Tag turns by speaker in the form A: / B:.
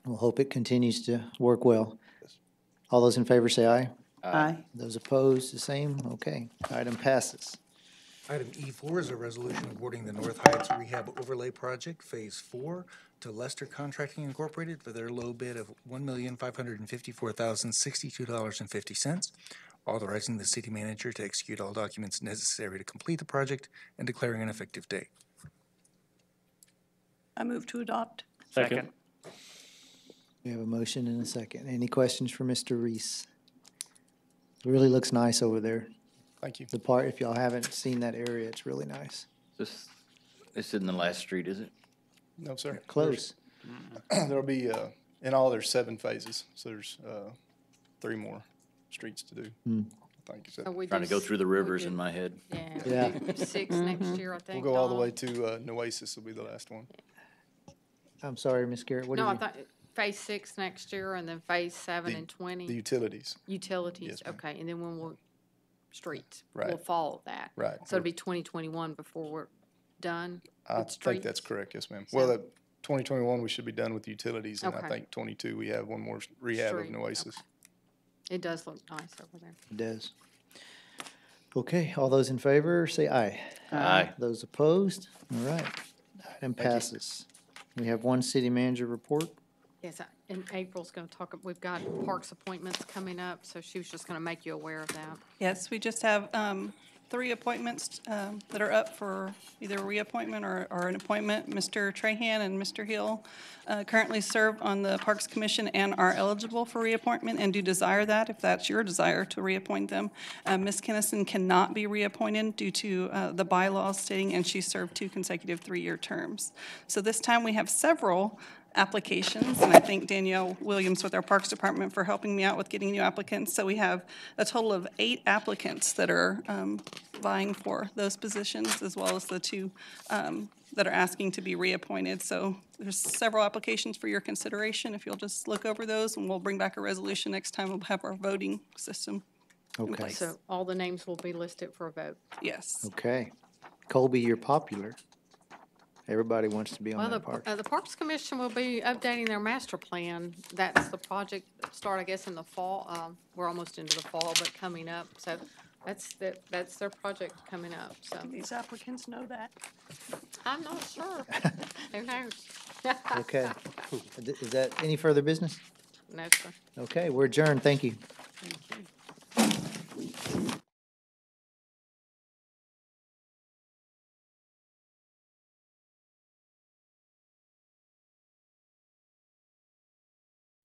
A: We'll hope it continues to work well. All those in favor say aye.
B: Aye.
A: Those opposed, the same. Okay, item passes.
C: Item E4 is a resolution awarding the North Heights Rehab Overlay Project Phase 4 to Lester Contracting Incorporated for their low bid of $1,554,062.50, authorizing the city manager to execute all documents necessary to complete the project and declaring an effective date.
B: I move to adopt.
D: Second.
A: We have a motion and a second. Any questions for Mr. Reese? It Really looks nice over there.
E: Thank you.
A: The part, if y'all haven't seen that area, it's really nice.
F: This, this isn't the last street, is it?
E: No, sir.
A: Close.
E: There's- There'll be, uh, in all, there's seven phases, so there's, uh, three more streets to do. I think so.
F: Trying to go through the rivers in my head.
A: Yeah.
G: Yeah, we do six next year, I
E: We'll
G: think.
E: go all the
G: Dawn.
E: way to, uh, Nueces will be the last one.
A: I'm sorry, Ms. Garrett, what do
G: No, I
A: you?
G: thought phase six next year and then phase seven
E: The-
G: and
E: The
G: twenty,
E: utilities,
G: utilities,
E: Yes, ma'am.
G: okay, and then when we're, streets. We'll
E: Right.
G: follow that.
E: right.
G: So it'll be twenty twenty-one before we're done.
E: I
G: with
E: think that's
G: streets?
E: correct, yes, ma'am. Well,
G: So-
E: that twenty twenty-one, we should be done with utilities, and I
G: Okay.
E: think twenty-two, we have one more s- rehab of
G: Street,
E: Nueces.
G: okay. It does look nice over there.
A: It does. Okay, all those in favor, say aye.
F: Aye.
A: Those opposed? All right, item passes. We have one city manager report.
G: Yes, I- and April's gonna talk, we've got parks appointments coming up, so she was just gonna make you aware of that.
B: Yes, we just have um, three appointments um, that are up for either reappointment or, or an appointment. Mr. Trahan and Mr. Hill uh, currently serve on the Parks Commission and are eligible for reappointment and do desire that, if that's your desire to reappoint them. Uh, Ms. Kennison cannot be reappointed due to uh, the bylaws stating, and she served two consecutive three-year terms. So this time, we have several applications, and I thank Danielle Williams with our Parks Department for helping me out with getting new applicants. So we have a total of eight applicants that are um, vying for those positions, as well as the two um, that are asking to be reappointed. So there's several applications for your consideration. If you'll just look over those, and we'll bring back a resolution next time. We'll have our voting system.
A: Okay,
G: So all the names will be listed for a vote.
B: Yes.
A: okay. Colby, you're popular. Everybody wants to be
G: Well,
A: on
G: the,
A: that
G: par-
A: park.
G: uh, the Parks Commission will be updating their master plan. That's the project, start, I guess, in the fall. Um, we're almost into the fall, but coming up, so that's, the- that's their project coming up, so.
B: These applicants know that.
G: I'm not sure. Who knows?
A: Okay, is that any further business?
G: No, sir.
A: Okay, we're adjourned, thank you.